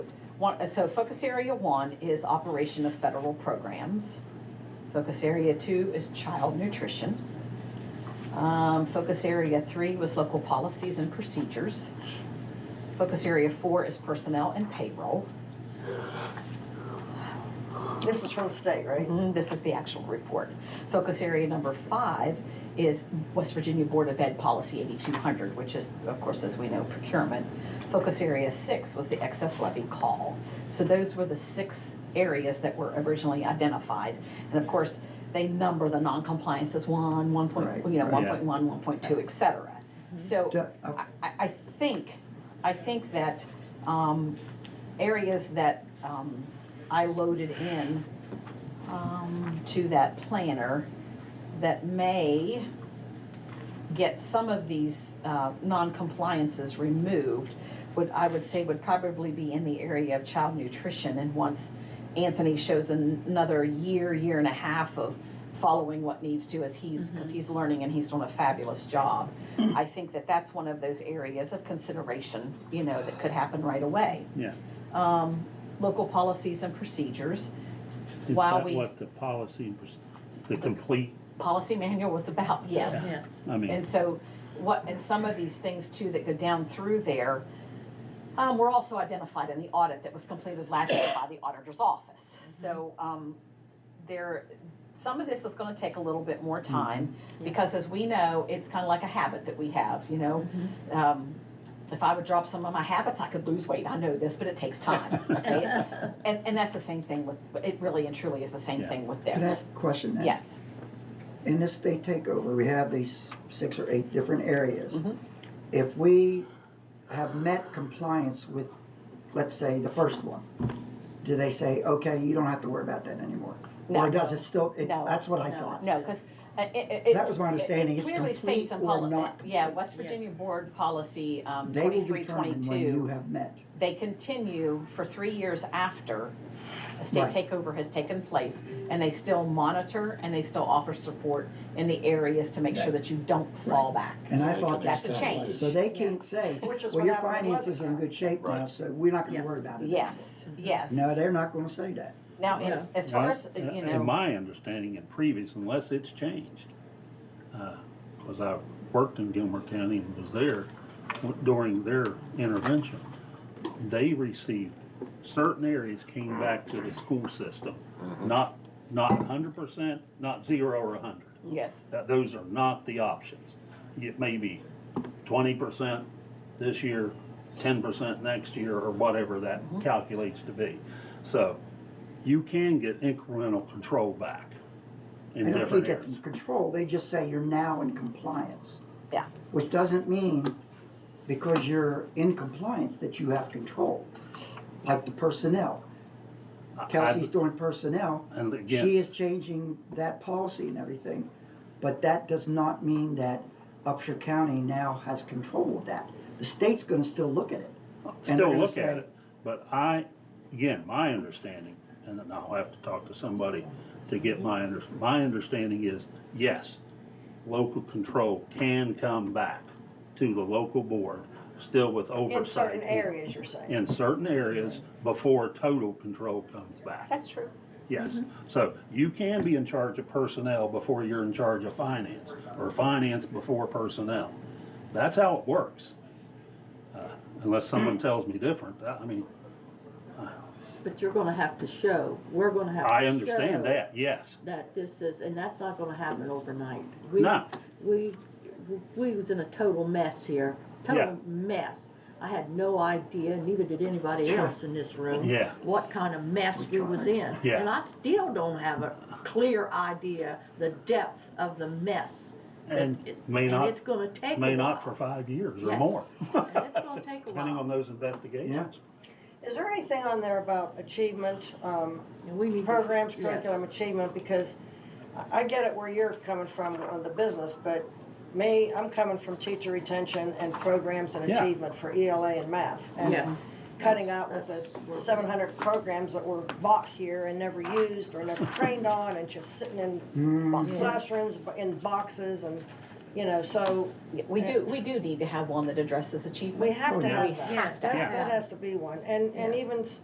one, so focus area one is operation of federal programs. Focus area two is child nutrition. Um, focus area three was local policies and procedures. Focus area four is personnel and payroll. This is from the state, right? Mm-hmm. Mm, This is the actual report. Focus area number five is West Virginia Board of Ed Policy 8200, which is, of course, as we know, procurement. Focus area six was the excess levy call. So those were the six areas that were originally identified. And of course, they number the non-compliance as one, one point, Right, you know, right. 1.1, 1.2, et cetera. So Yeah, uh, I, I- I I think, I think that um, areas that um, I loaded in um, to that planner that may get some of these uh, non-compliances removed, would, I would say would probably be in the area of child nutrition. And once Anthony shows an- another year, year and a half of following what needs to as he's, because he's learning and he's doing a fabulous job. I think that that's one of those areas of consideration, you know, that could happen right away. Yeah. Um, Local policies and procedures, Is While that we- what the policy, and pers- the complete, policy manual was about, yes. Yes. I mean, And so what, and some of these things too that go down through there, um, were also identified in the audit that was completed last year by the auditor's office. Mm-hmm. So, um, there, some of this is gonna take a little bit more Mm-hmm. time, because as we know, it's kinda like a habit that we have, you know? Mm-hmm. Um, if I would drop some of my habits, I could lose weight, I know this, but it takes time, right? And, and that's the same thing with, it really and truly is the same Yeah. thing with Can I ask this. a question then? Yes, In this state takeover, we have these six or eight different areas. Mhm. If we have met compliance with, let's say, the first one, do they say, okay, you don't have to worry about that anymore? No. Or does it still, it- No. that's what I No. thought. no, because it, it. That was my it- it understanding. It's clearly states complete in or poli- not Yeah, complete. West Virginia Yes. Board Policy, um, They will twenty-three, determine when you twenty-two, have met. they continue for three years after a state Right. takeover has taken place, and they still monitor and they still offer support in the areas to make sure Right. that you don't fall back. And I thought That's that's a how it was. change. So they can't say, Which is well, what your happened with finances are in Weathercock. good shape now, so we're not gonna Yes. worry about it. Yes, yes. No, they're not gonna say that. Now, in- Yeah. as far as, Well, you Uh, In know, my understanding and previous, unless it's changed, because I worked in Gilmer County and was there during their intervention, they received, certain areas came back to the school system, not, not hundred percent, not zero or hundred. yes, That, those are not the options. It may be twenty percent this year, ten percent next year, or whatever that Mm-hmm. calculates to be. So you can get incremental control back in And if they different get areas. control, they just say you're now in compliance. yeah, Which doesn't mean because you're in compliance that you have control, like the personnel. I- I- Kelsey's doing personnel. And again- She is changing that policy and everything, but that does not mean that Upshur County now has control of that. The state's gonna still look at it. and they're still gonna look say- at it, but I, again, my understanding, and then I'll have to talk to somebody to get my under, my understanding is, yes, local control can come back to the local board, still with In oversight. certain areas, you're saying. In certain areas before total control comes back, that's true. mm-hmm. yes. So you can be in charge of personnel before you're in charge of finance, or finance before personnel. That's how it works. Uh, Unless someone tells me different, I I mean, But you're gonna have to show, we're gonna have to show. I understand that, yes. That this is, and that's not gonna happen overnight. We- No, We, we was in a total mess here, Yeah. total mess. I had no idea, neither did anybody else in this room. Yeah. What kind of mess we was in. Yeah. And I still don't have a clear idea, the depth of the mess. and It- may and not, it's gonna take a may not for while. five years or Yes. more. And it's gonna take a Depending while. on those investigations. Is there anything on there about achievement, um, And we need to- programs, yes. curriculum, achievement? Because I- I get it where you're coming from on the business, but me, I'm coming from teacher retention and programs and Yeah. achievement for ELA and math. and Yes. Cutting out with That's- that's the where- seven hundred programs that were bought here and never used or never trained on and just sitting in bo- Yes. classrooms, bo- in boxes and, you know, so We do, we do need to have one that addresses achievement. we have Oh, to yeah. have We that. have That's, to that have has to be one. And, and Yes. even s-